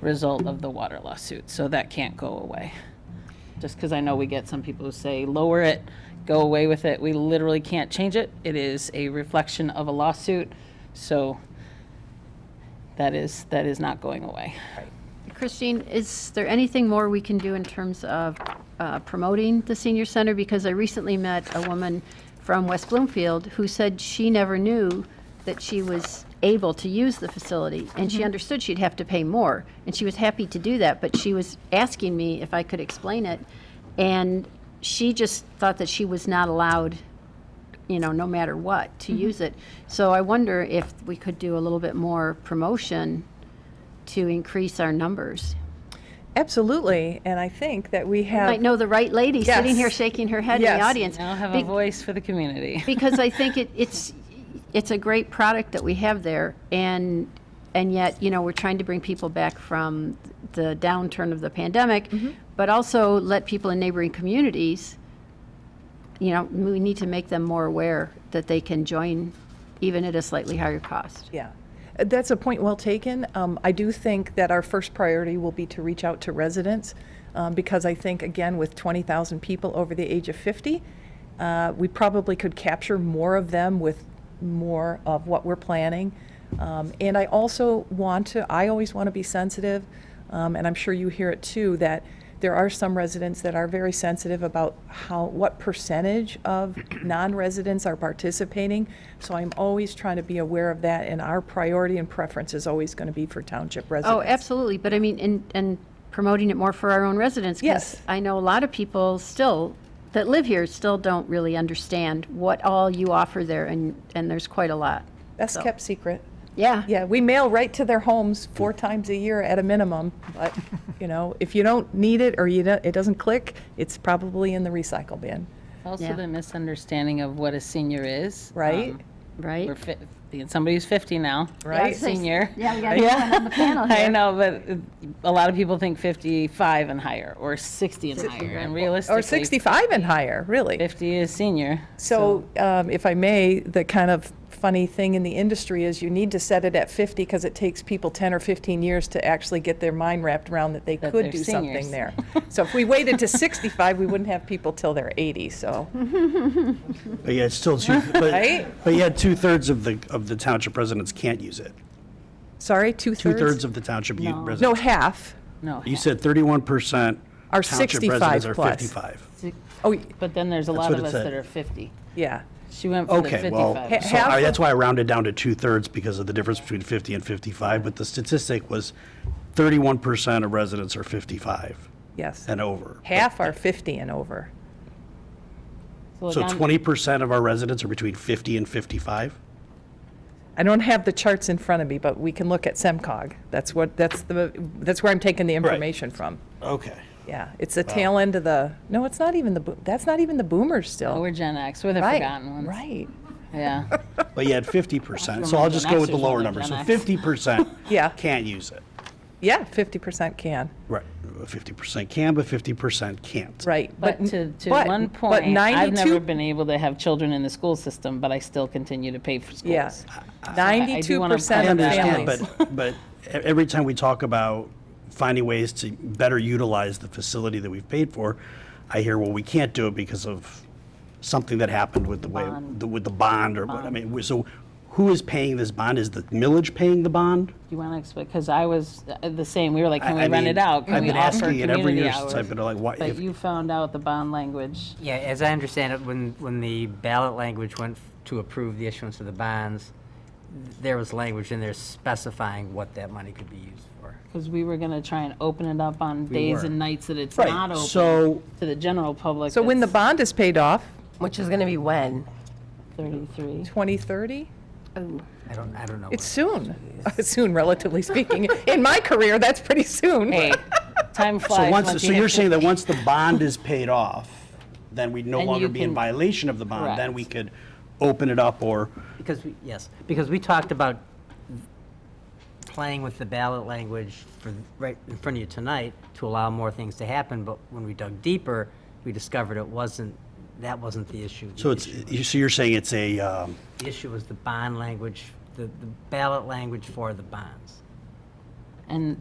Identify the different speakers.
Speaker 1: result of the water lawsuit, so that can't go away. Just because I know we get some people who say, lower it, go away with it, we literally can't change it. It is a reflection of a lawsuit, so that is, that is not going away.
Speaker 2: Christine, is there anything more we can do in terms of uh, promoting the senior center? Because I recently met a woman from West Bloomfield who said she never knew that she was able to use the facility, and she understood she'd have to pay more, and she was happy to do that, but she was asking me if I could explain it, and she just thought that she was not allowed you know, no matter what, to use it. So I wonder if we could do a little bit more promotion to increase our numbers.
Speaker 3: Absolutely, and I think that we have.
Speaker 2: Might know the right lady sitting here
Speaker 3: Yes.
Speaker 2: shaking her head in the
Speaker 3: Yes.
Speaker 2: audience.
Speaker 1: Now have
Speaker 2: Be-
Speaker 1: a voice for the community.
Speaker 2: Because I think it, it's, it's a great product that we have there, and, and yet, you know, we're trying to bring people back from the downturn of the pandemic,
Speaker 3: Mm-hmm.
Speaker 2: but also let people in neighboring communities, you know, we need to make them more aware that they can join even at a slightly higher cost.
Speaker 3: Yeah, Uh, that's a point well taken. Um, I do think that our first priority will be to reach out to residents, um, because I think, again, with 20,000 people over the age of 50, uh, we probably could capture more of them with more of what we're planning. Um, And I also want to, I always want to be sensitive, um, and I'm sure you hear it too, that there are some residents that are very sensitive about how, what percentage of non-residents are participating. So I'm always trying to be aware of that, and our priority and preference is always going to be for township
Speaker 2: Oh,
Speaker 3: residents.
Speaker 2: absolutely, but I mean, and, and promoting it more for our own residents. 'cause
Speaker 3: Yes.
Speaker 2: I know a lot of people still, that live here, still don't really understand what all you offer there, and, and there's quite a lot.
Speaker 3: Best kept secret.
Speaker 2: Yeah.
Speaker 3: Yeah, we mail right to their homes four times a year at a minimum, but, you know, if you don't need it or you don't, it doesn't click, it's probably in the recycle bin,
Speaker 1: Also,
Speaker 2: Yeah.
Speaker 1: the misunderstanding of what a senior is.
Speaker 3: right?
Speaker 1: Um,
Speaker 2: Right?
Speaker 1: We're fi- somebody's 50 now.
Speaker 3: Right.
Speaker 1: Senior.
Speaker 2: Yeah, we got a new one on the panel
Speaker 1: I
Speaker 2: here.
Speaker 1: know, but uh, a lot of people think 55 and higher, or 60 and higher, and realistically.
Speaker 3: Or 65 and higher, really.
Speaker 1: 50 is senior.
Speaker 3: So um, if I may, the kind of funny thing in the industry is you need to set it at 50 because it takes people 10 or 15 years to actually get their mind wrapped around that they
Speaker 1: That
Speaker 3: could
Speaker 1: they're
Speaker 3: do
Speaker 1: seniors.
Speaker 3: something there. So if we waited to 65, we wouldn't have people till they're 80, so,
Speaker 4: But yeah, it's still two,
Speaker 3: Right?
Speaker 4: but, but yeah, two-thirds of the, of the township residents can't use it.
Speaker 3: sorry, two-thirds?
Speaker 4: Two-thirds of the township u- residents.
Speaker 3: No, half.
Speaker 1: No.
Speaker 4: You said thirty-one percent.
Speaker 3: Are 65
Speaker 4: Township residents are
Speaker 3: plus.
Speaker 4: fifty-five.
Speaker 3: Oh,
Speaker 1: But then there's a lot
Speaker 4: what
Speaker 1: of
Speaker 4: it
Speaker 1: us
Speaker 4: said.
Speaker 1: that are 50.
Speaker 3: yeah.
Speaker 1: She went from the
Speaker 4: Okay, well,
Speaker 1: 55.
Speaker 3: Ha-
Speaker 4: so
Speaker 3: half
Speaker 4: I-
Speaker 3: of-
Speaker 4: that's why I rounded down to two-thirds because of the difference between fifty and fifty-five, but the statistic was thirty-one percent of residents are fifty-five
Speaker 3: Yes.
Speaker 4: and over.
Speaker 3: Half are 50 and over.
Speaker 1: Well,
Speaker 4: So
Speaker 1: down-
Speaker 4: twenty percent of our residents are between fifty and fifty-five?
Speaker 3: I don't have the charts in front of me, but we can look at SEMCOG. That's what, that's the, that's where I'm taking the information from.
Speaker 4: Okay.
Speaker 3: Yeah, it's the tail end of the, no, it's not even the, bo- that's not even the boomers
Speaker 1: Oh,
Speaker 3: still.
Speaker 1: We're Gen X, we're the
Speaker 3: Right,
Speaker 1: forgotten ones.
Speaker 3: Right,
Speaker 1: Yeah.
Speaker 4: But you had fifty percent, so I'll just go with the lower number. So fifty percent
Speaker 3: Yeah.
Speaker 4: can't use it.
Speaker 3: yeah, 50% can,
Speaker 4: Right, fifty percent can, but fifty percent can't.
Speaker 3: right.
Speaker 1: But to, to one
Speaker 3: but
Speaker 1: point, I've never
Speaker 3: 92
Speaker 1: been able to have children in the school system, but I still continue to pay for schools.
Speaker 3: Yeah,
Speaker 1: I do
Speaker 3: ninety-two
Speaker 1: wanna
Speaker 4: I
Speaker 3: percent of
Speaker 1: point
Speaker 4: understand,
Speaker 3: families.
Speaker 4: but, but e- every time we talk about finding ways to better utilize the facility that we've paid for, I hear, well, we can't do it because of something that happened with the way, the- with the bond or what, I mean, we- so who is paying this bond? Is the millage paying the bond?
Speaker 1: Do you want to explain? Because I was uh, the same. We were like,
Speaker 4: I-
Speaker 1: can
Speaker 4: I
Speaker 1: we rent
Speaker 4: mean,
Speaker 1: it out? Can
Speaker 4: I've
Speaker 1: we
Speaker 4: been
Speaker 1: offer
Speaker 4: asking it every
Speaker 1: community
Speaker 4: year since
Speaker 1: hours?
Speaker 4: I've been like, why?
Speaker 1: But
Speaker 4: if-
Speaker 1: you found out the bond language.
Speaker 5: Yeah, as I understand it, when, when the ballot language went f- to approve the issuance of the bonds, there was language in there specifying what that money could be used for.
Speaker 1: Because we were going to try and open it up on days
Speaker 5: were.
Speaker 1: and nights that it's
Speaker 4: Right,
Speaker 1: not open
Speaker 4: so-
Speaker 1: to the general public.
Speaker 3: So when the
Speaker 1: that's
Speaker 3: bond is paid off,
Speaker 6: Which is going to be when?
Speaker 1: 33.
Speaker 3: twenty-thirty,
Speaker 5: I don't, I don't know.
Speaker 3: it's soon, soon relatively speaking. In my career, that's pretty soon.
Speaker 1: Hey, time flies.
Speaker 4: So once,
Speaker 1: once
Speaker 4: so
Speaker 1: you
Speaker 4: you're
Speaker 1: hit
Speaker 4: saying that once the bond is paid off, then we'd no
Speaker 1: Then
Speaker 4: longer
Speaker 1: you
Speaker 4: be in
Speaker 1: can-
Speaker 4: violation of the bond? Then
Speaker 1: Correct.
Speaker 4: we could open it up or?
Speaker 5: Because, we yes, because we talked about playing with the ballot language for, right in front of you tonight to allow more things to happen, but when we dug deeper, we discovered it wasn't, that wasn't the issue. The
Speaker 4: So it's,
Speaker 5: issue-
Speaker 4: you- so you're saying it's a, um,
Speaker 5: The issue was the bond language, the the ballot language for the bonds.
Speaker 1: And